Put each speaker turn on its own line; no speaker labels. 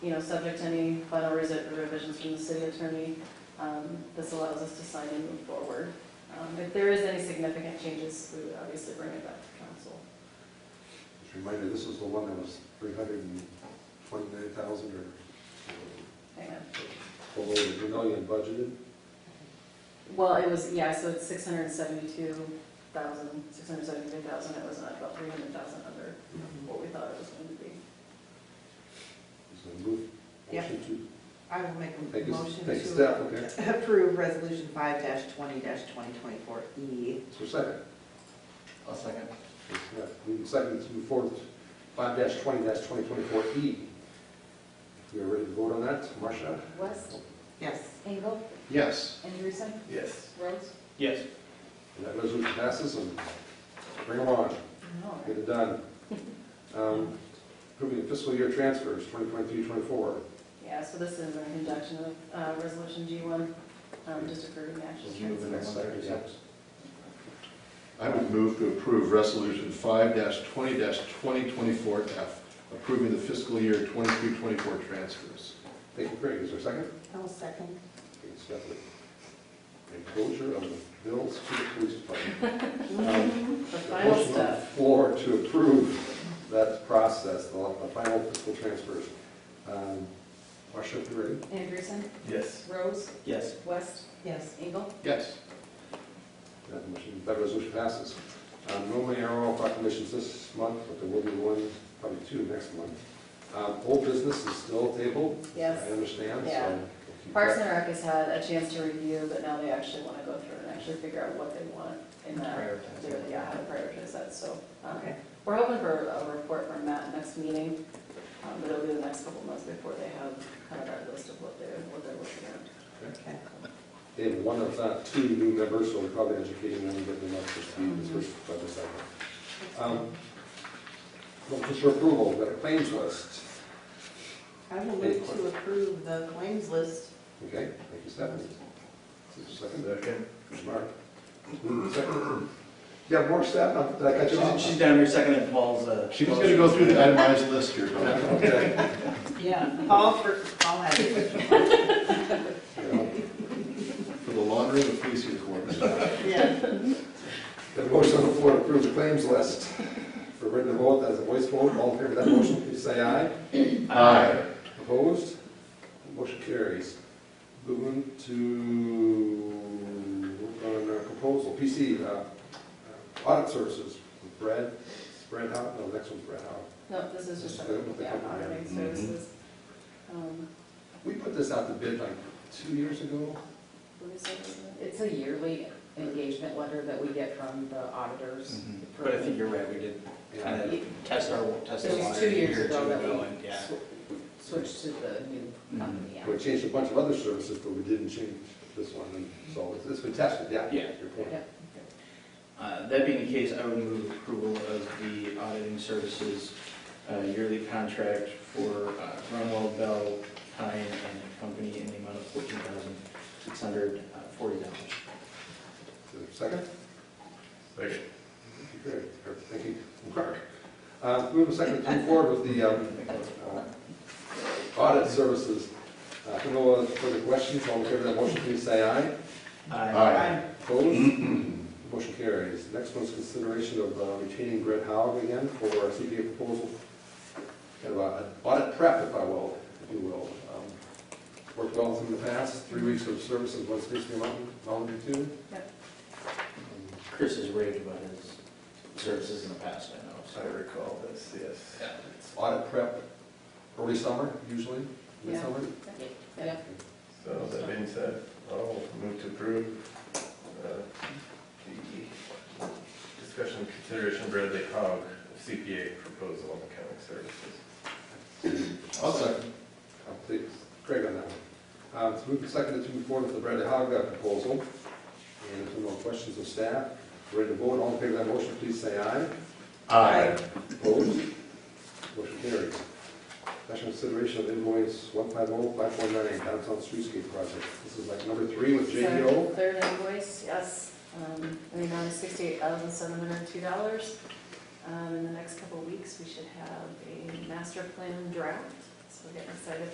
you know, subject to any final resi- revisions from the city attorney. Um, This allows us to sign and move forward. Um, If there is any significant changes, we would obviously bring it back to council.
Just a reminder, this was the one that was three hundred and twenty-nine thousand or
Amen.
below the million budgeted.
Well, it was, yeah, so it's 672,000, 673,000, it was not about 300,000 under what we thought it was going to be.
So move,
Yep.
motion
I will make
to, take
a motion
a, take a step,
to
okay?
approve Resolution five twenty twenty twenty-four E.
So second,
I'll second.
It's, uh, we can second to move forward, five twenty twenty twenty-four E. We are ready to vote on that, Marcia?
West,
Yes.
Engel,
Yes.
Anderson,
Yes.
Rhodes.
Yes.
And that resolution passes and bring them on.
No.
Get it done. Um, Approving fiscal year transfers, 2023-24.
Yeah, so this is in conjunction with uh, Resolution G1, um, just approving the actual
We'll move the next
transfer.
second, yes.
I would move to approve Resolution five twenty twenty twenty-four F, approving the fiscal year twenty-three, twenty-four transfers.
Thank you, Craig. Is there a second?
I'll second.
Thank you, Stephanie. A closure of the bills to the police department. Um,
The final
Motion on the
step.
floor to approve that process, the the final fiscal transfers. Um, Marcia, if you're ready.
Anderson,
Yes.
Rhodes,
Yes.
West,
Yes.
Engel.
Yes.
That motion, that resolution passes. Um, Normally, there are all proclamations this month, but there will be one, probably two next month. Um, Old business is still tabled.
Yes.
I understand,
Yeah.
so.
Parks and Rec has had a chance to review, but now they actually want to go through and actually figure out what they want in that,
Prioritize.
yeah, how to prioritize that, so. um,
Okay.
We're hoping for a report from Matt next meeting, um, but it'll be the next couple months before they have kind of our list of what they're, what they're looking at.
Okay.
They have one of not two new members, so we're probably educating them, getting them up to speed
Mm-hmm.
this first budget cycle. Um, well, Just for approval, we've got a claims list.
I will move to approve the claims list.
Okay, thank you, Stephanie. Is there a second?
Second.
Mark? Moving second. You have more, Steph? Did I catch you off?
She's she's down here seconding Paul's, uh.
She was gonna go through the itemized list here. but-
Okay.
Yeah. All for, all had it.
Yeah.
For the laundering of police uniforms.
Yeah.
Got a motion on the floor to approve the claims list for written vote as a voice vote. All in favor of that motion, please say aye.
Aye.
Opposed? Motion carries. Moving to, work on our proposal, PC, uh, uh, audit services, Brad, Brad Howe, no, next one's Brad Howe.
No, this is just,
Just the- the
yeah,
company.
auditing services. Um,
We put this out to bid like two years ago.
what is it?
It's a yearly engagement letter that we get from the auditors.
Mhm. But I think you're right, we did kind of test our, test
It
our.
was
water
two
a year
years
or
ago
two
that we-
and, Yeah.
Sw- Switched to the new company. yeah.
We changed a bunch of other services, but we didn't change this one, and so it's- it's been tested, yeah.
Yeah.
Your point.
Uh, That being the case, I would move approval of the auditing services uh, yearly contract for uh, Grunwald Bell, Pine and Company in the amount of fourteen thousand six hundred uh, forty dollars.
Is there a Second?
Second.
Thank you, Greg. Or, Thank you, Mark. Uh, Move a second to move forward with the um, uh, audit services. Uh, If no other further questions, all in favor of that motion, please say aye.
Aye.
Opposed? Motion carries. Next one's consideration of uh, retaining Brett Howard again for our CPA proposal. Kind of a- an audit prep, if I will, if you will. Um, Worked well in the past, three weeks of service in West Bisbee Mountain, Mountain View.
Chris has raved about his services in the past, I know. so-
recall this, yes.
Yeah.
Audit prep, early summer usually,
Yeah.
midsummer.
Yeah.
So that being said, I'll move to approve uh, the discussion and consideration Bradley Hogg CPA proposal on accounting services.
I'll second. I'll take Craig on that one. Uh, It's moved and seconded to move forward with the Bradley Hogg uh, proposal. And if there are no questions of staff, ready to vote, all in favor of that motion, please say aye.
Aye.
Opposed? Motion carries. Special consideration of invoice 150549, downtown streetscape project. This is like number three with
So,
JDO.
Third invoice, yes, um, in the amount of sixty-eight thousand seven hundred and two dollars. Um, in the next couple of weeks, we should have a master plan draft, so we're getting excited